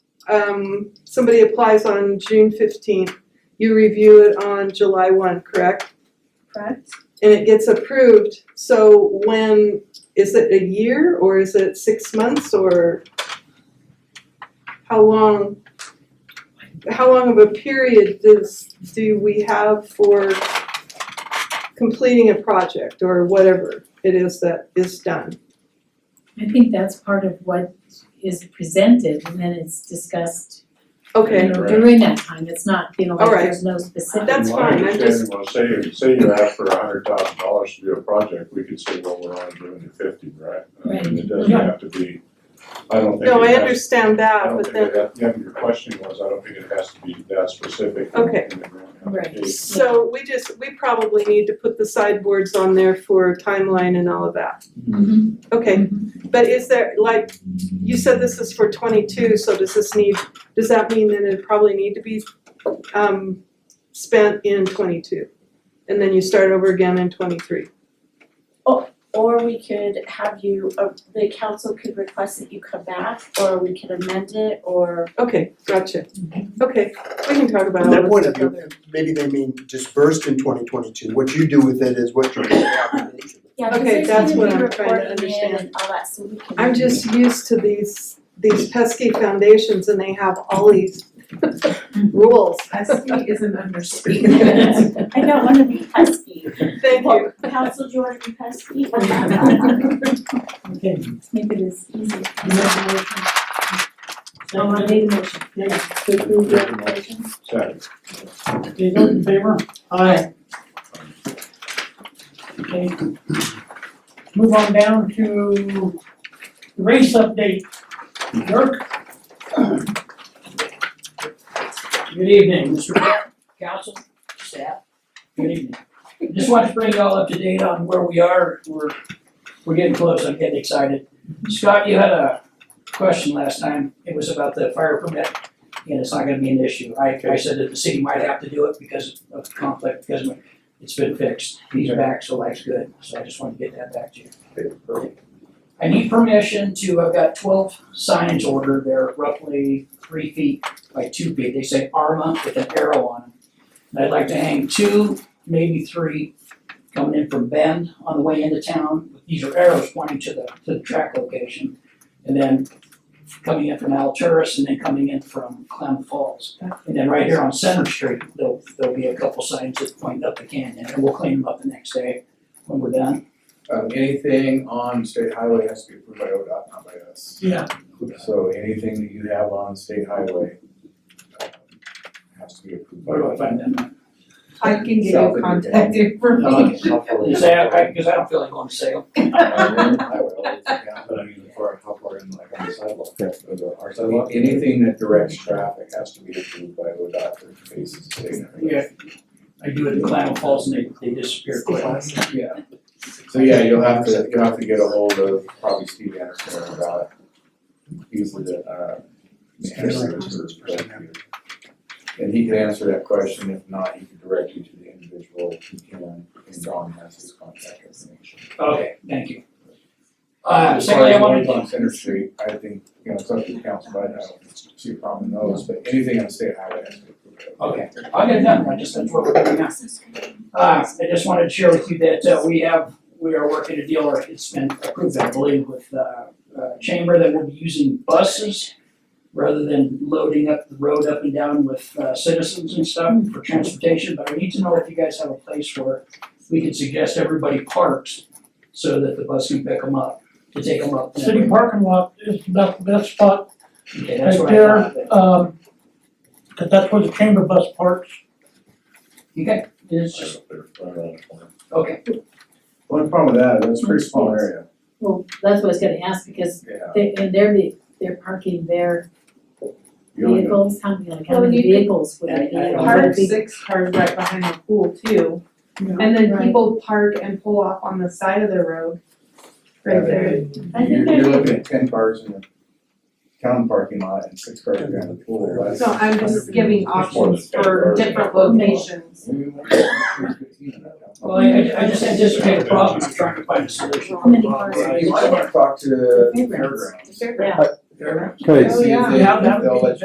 um, somebody applies on June fifteenth, you review it on July one, correct? correct? And it gets approved, so when, is it a year or is it six months or how long? How long of a period does, do we have for completing a project or whatever it is that is done? I think that's part of what is presented and then it's discussed, you Okay, know, Right. during that time, it's not, you know, like Alright. there's no specific. That's From fine, I My understanding was, say, say you ask for a hundred thousand dollars to do a project, we could say, well, we're only doing it fifty, right? I mean, it doesn't Right. have to be, I don't think it has. no, I understand I that, don't but think then it has- yeah, your question was, I don't think it has to be that specific. in- Okay. in the grant Right. application. So we just, we probably need to put the sideboards on there for timeline and all of that. Mhm. Okay, but is there, like, you said this is for twenty-two, so does this need, does that mean that it probably need to be um spent in twenty-two? And then you start over again in twenty-three? Or we could have you, uh, the council could request that you come back, or we could amend it, or Okay, gotcha. Okay, we can talk about all From that this point stuff of view, other- maybe they mean dispersed in twenty twenty-two, what you do with it is what you're. Yeah, cause Okay, there's that's gonna what be I'm trying to reporting in understand. and all that, so we can. I'm just used to these, these pesky foundations and they have all these rules. Pesky is an understatement. Mhm. I don't wanna be pesky. Thank you. Council, do you wanna be pesky? Okay, let's make it as easy. Oh, I made a motion. Second. Okay, vote in favor? Aye. Okay. Move on down to race update. Dirk? Good evening, Mr. Mayor, council, staff, good evening. Just want to bring you all up to date on where we are, we're, we're getting close, I'm getting excited. Scott, you had a question last time, it was about the fire permit, and it's not gonna be an issue. I, I said that the city might have to do it because of conflict, because it's been fixed. He's back, so life's good, so I just wanted to get that back to you. I need permission to, I've got twelve signs ordered, they're roughly three feet by two feet, they say Arma with an arrow on them. And I'd like to hang two, maybe three, coming in from Bend on the way into town, these are arrows pointing to the, to the track location. And then coming in from Alturas and then coming in from Clem Falls. And then right here on Center Street, there'll, there'll be a couple signs that point up the canyon, and we'll clean them up the next day when we're done. Um, anything on state highway has to be approved by ODOT, not by us. Yeah. So anything that you have on state highway, um, has to be approved by Where do I ODOT. find Uh, that? I can give South you of contact No, information. it's not for me. Say, I, because I don't feel like going to sale. Um, I would always look out, but I mean, as far as how far in, like on the sidewalk, or the- our sidewalk, anything that directs traffic has to be approved by ODOT for phases state. highway. Yeah. I do it in Clam Falls and they, they disappear quick. Yeah. So yeah, you'll have to, you'll have to get a hold of probably Steve Anderson about, he's the, uh, Anderson for that. And he can answer that question, if not, he can direct you to the individual who can, and Don has his contact information. Okay, thank you. Uh, As far secondly, I as wanted ones on to, Center Street, I think, you know, it's up to the council, but I don't see a problem with those, but anything on state highway has to be approved. okay, I'll get it done, I just, that's what we're doing now. Uh, I just wanted to share with you that, uh, we have, we are working a deal, or it's been approved, I believe, with, uh, uh, Chamber that will be using buses rather than loading up the road up and down with, uh, citizens and stuff for transportation, but I need to know if you guys have a place where we can suggest everybody parks so that the bus can pick them up, to take them up. City parking lot is about the best spot, Okay, that's what I thought, Right but- um, cause that's where the chamber bus parks. okay, it's just, okay, One problem with that, that's a pretty small area, Well, that's what I was gonna ask because yeah. they, and they're, the- they're parking their You only- vehicles, how many, like, how Well, many you could- vehicles would it be? I- I don't Would Park it be- six cars right behind the pool too, No. and then Right. people park and pull off on the side of the road. Right there, I You're, think you're there's, looking at ten cars in the town parking lot and six cars around the pool, that's. so I'm just giving There's more than options 10 for cars. different locations. well, I, I I just anticipate a problem, I'm trying to find a solution. How many cars? You might wanna talk to the Fairgrounds. fairgrounds. Yeah. Fairgrounds? Oh, See if they, yeah. if they'll let you